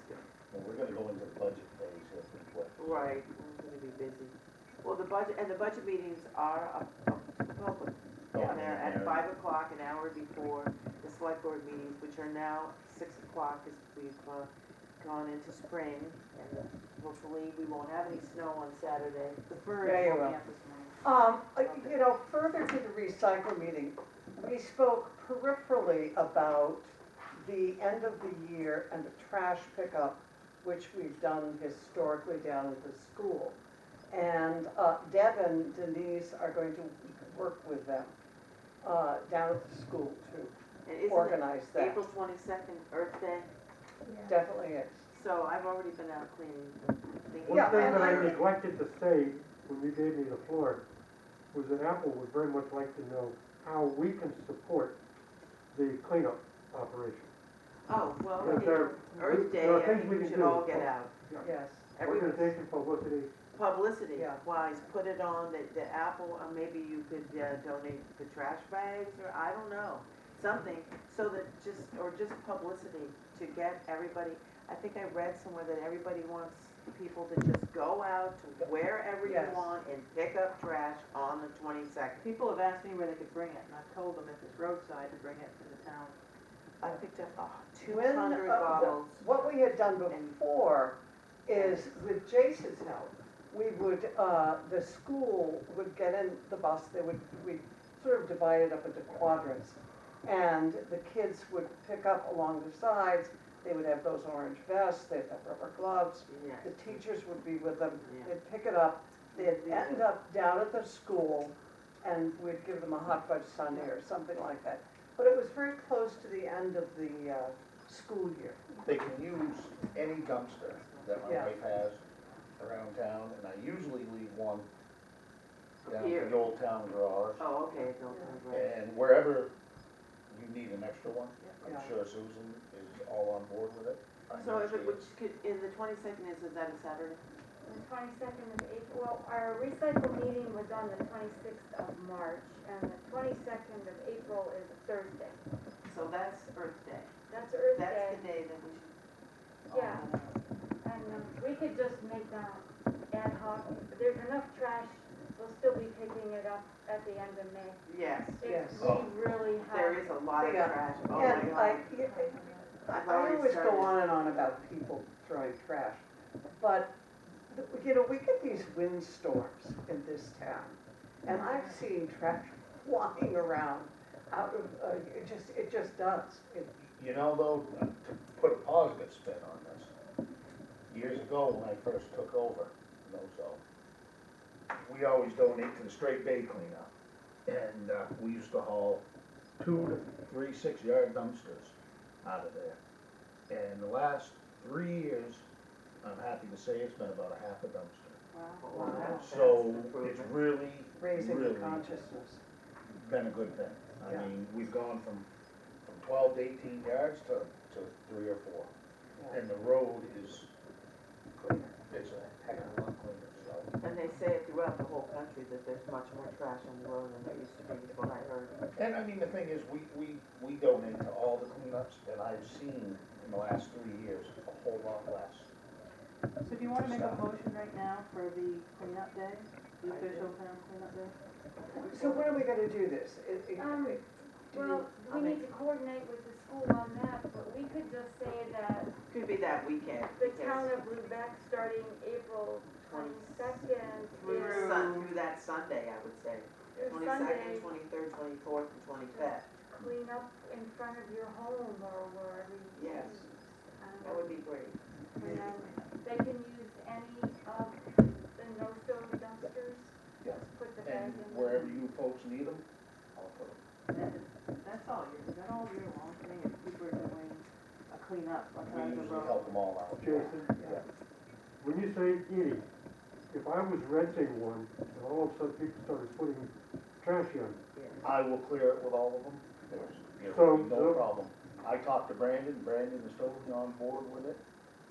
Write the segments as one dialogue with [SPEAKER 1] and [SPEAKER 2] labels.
[SPEAKER 1] Well, we're gonna go into the budget phase here pretty quick.
[SPEAKER 2] Right, I'm gonna be busy. Well, the budget, and the budget meetings are up up to the public.
[SPEAKER 1] Oh,
[SPEAKER 2] And they're at
[SPEAKER 1] yeah.
[SPEAKER 2] five o'clock, an hour before the select board meetings, which are now six o'clock, as we've uh, gone into spring. And hopefully, we won't have any snow on Saturday. The
[SPEAKER 3] Yeah,
[SPEAKER 2] birds
[SPEAKER 3] you
[SPEAKER 2] won't
[SPEAKER 3] will.
[SPEAKER 2] be out this morning.
[SPEAKER 3] Um, uh, you know, further to the recycle meeting, we spoke peripherally about the end of the year and the trash pickup, which we've done historically down at the school. And uh, Deb and Denise are going to work with them uh, down at the school to
[SPEAKER 2] And isn't it
[SPEAKER 3] organize that.
[SPEAKER 2] April twenty-second, Earth Day?
[SPEAKER 3] Definitely is.
[SPEAKER 2] So I've already been out cleaning. the- the-
[SPEAKER 3] Yeah,
[SPEAKER 4] One thing
[SPEAKER 3] and
[SPEAKER 4] that I
[SPEAKER 3] I-
[SPEAKER 4] neglected to say when you gave me the floor was that Apple would very much like to know how we can support the cleanup operation.
[SPEAKER 2] Oh, well,
[SPEAKER 4] Yes, sir.
[SPEAKER 2] Earth Day,
[SPEAKER 4] There are
[SPEAKER 2] I
[SPEAKER 4] things
[SPEAKER 2] think
[SPEAKER 4] we
[SPEAKER 2] we
[SPEAKER 4] can
[SPEAKER 2] should
[SPEAKER 4] do.
[SPEAKER 2] all get out.
[SPEAKER 3] Yes,
[SPEAKER 2] Everybody's-
[SPEAKER 4] Organization publicity,
[SPEAKER 2] publicity
[SPEAKER 3] Yeah.
[SPEAKER 2] wise, put it on the, the Apple, or maybe you could uh, donate the trash bags, or I don't know, something, so that just, or just publicity to get everybody, I think I read somewhere that everybody wants people to just go out to wherever you
[SPEAKER 3] Yes.
[SPEAKER 2] want and pick up trash on the twenty-second.
[SPEAKER 5] People have asked me where they could bring it, and I've told them if it's roadside, to bring it to the town.
[SPEAKER 2] I picked up, oh, two
[SPEAKER 3] When, uh,
[SPEAKER 2] hundred
[SPEAKER 3] the-
[SPEAKER 2] bottles.
[SPEAKER 3] What we had done before is with Jason's help, we would, uh, the school would get in the bus, they would, we'd sort of divide it up into quadrants. And the kids would pick up along the sides, they would have those orange vests, they'd have rubber gloves,
[SPEAKER 2] Yeah.
[SPEAKER 3] the teachers would be with them,
[SPEAKER 2] Yeah.
[SPEAKER 3] they'd pick it up, they'd
[SPEAKER 2] Yeah.
[SPEAKER 3] end up down at the school and we'd give them a hot fudge sundae or something like that. But it was very close to the end of the, uh, school year.
[SPEAKER 1] They can use any dumpster that my
[SPEAKER 3] Yeah.
[SPEAKER 1] wife has around town, and I usually leave one down
[SPEAKER 2] Here.
[SPEAKER 1] at the old town garage.
[SPEAKER 2] Oh, okay, don't, right.
[SPEAKER 1] And wherever you need an extra one, I'm
[SPEAKER 3] Yeah.
[SPEAKER 1] sure Susan is all on board with it. I know
[SPEAKER 2] Oh, So if
[SPEAKER 1] she
[SPEAKER 2] it,
[SPEAKER 1] is.
[SPEAKER 2] which could, in the twenty-second is, is that a Saturday?
[SPEAKER 6] The twenty-second of April, well, our recycle meeting was on the twenty-sixth of March, and the twenty-second of April is a Thursday.
[SPEAKER 2] So that's Earth Day.
[SPEAKER 6] That's Earth Day,
[SPEAKER 2] That's the day that we should.
[SPEAKER 6] yeah, and we could just make that ad hoc. There's enough trash, we'll still be picking it up at the end of May.
[SPEAKER 2] Yes,
[SPEAKER 3] Yes.
[SPEAKER 6] If we really
[SPEAKER 2] there
[SPEAKER 6] have,
[SPEAKER 2] is a lot of
[SPEAKER 3] Yeah.
[SPEAKER 2] trash. Oh my
[SPEAKER 3] And I,
[SPEAKER 2] God.
[SPEAKER 3] I
[SPEAKER 2] I've already
[SPEAKER 3] always go
[SPEAKER 2] started.
[SPEAKER 3] on and on about people throwing trash, but, you know, we get these windstorms in this town. And I've seen trash flying around out of, uh, it just, it just does. It-
[SPEAKER 1] You know, though, to put a positive spin on this, years ago when I first took over, you know, so, we always donate to the straight bay cleanup. And, uh, we used to haul two to three six-yard dumpsters out of there. And the last three years, I'm happy to say it's been about a half a dumpster.
[SPEAKER 2] Wow, that's- that's
[SPEAKER 1] So
[SPEAKER 2] an
[SPEAKER 1] it's
[SPEAKER 2] improvement.
[SPEAKER 1] really,
[SPEAKER 3] Raising the
[SPEAKER 1] really
[SPEAKER 3] consciousness.
[SPEAKER 1] been a good thing. I
[SPEAKER 3] Yeah.
[SPEAKER 1] mean, we've gone from, from twelve to eighteen yards to, to three or four. And the road is cleaner, it's a heck of a lot cleaner, so.
[SPEAKER 2] And they say it throughout the whole country that there's much more trash on the road than there used to be, is what I heard.
[SPEAKER 1] And I mean, the thing is, we, we, we donate to all the cleanups, and I've seen in the last three years, a whole lot less.
[SPEAKER 5] So do you wanna make a motion right now for the cleanup day, the official town cleanup day?
[SPEAKER 3] So when are we gonna do this? It- it-
[SPEAKER 6] Um,
[SPEAKER 3] it- do you-
[SPEAKER 6] well,
[SPEAKER 2] I'll
[SPEAKER 6] we
[SPEAKER 2] make-
[SPEAKER 6] need to coordinate with the school on that, but we could just say that
[SPEAKER 2] Could be that weekend.
[SPEAKER 6] the
[SPEAKER 2] yes.
[SPEAKER 6] town of Lubec, starting April twenty-second,
[SPEAKER 2] Through
[SPEAKER 6] is
[SPEAKER 2] Sun, through that Sunday, I would say.
[SPEAKER 6] is Sunday.
[SPEAKER 2] Twenty-second, twenty-third, twenty-fourth, and twenty-fifth.
[SPEAKER 6] clean up in front of your home or wherever you.
[SPEAKER 2] Yes.
[SPEAKER 6] Um,
[SPEAKER 2] That would be great.
[SPEAKER 6] And then they can use any of the no-fill dumpsters,
[SPEAKER 1] Yeah.
[SPEAKER 6] just put the
[SPEAKER 1] And
[SPEAKER 6] bags in.
[SPEAKER 1] wherever you folks need them, I'll put them.
[SPEAKER 5] That's all year, is that all year long thing, if people are doing a cleanup on
[SPEAKER 1] We
[SPEAKER 5] the
[SPEAKER 1] usually help
[SPEAKER 5] road?
[SPEAKER 1] them all out.
[SPEAKER 4] Jason, when you say any, if I was renting one and all of a sudden people started putting trash in,
[SPEAKER 1] I will clear it with all of them, there's, there's
[SPEAKER 4] So-
[SPEAKER 1] no problem. I talked to Brandon, Brandon is totally on board with it,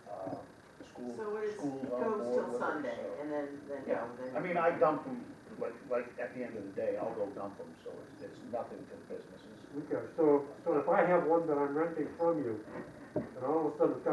[SPEAKER 1] uh, the school,
[SPEAKER 2] So it is,
[SPEAKER 1] school's
[SPEAKER 2] it
[SPEAKER 1] on
[SPEAKER 2] goes
[SPEAKER 1] board
[SPEAKER 2] till
[SPEAKER 1] with it,
[SPEAKER 2] Sunday,
[SPEAKER 1] so.
[SPEAKER 2] and then, then,
[SPEAKER 1] Yeah.
[SPEAKER 2] no, then.
[SPEAKER 1] I mean, I dump them, like, like, at the end of the day, I'll go dump them, so it's, it's nothing to the businesses.
[SPEAKER 4] okay, so, so if I have one that I'm renting from you and all of a sudden it's got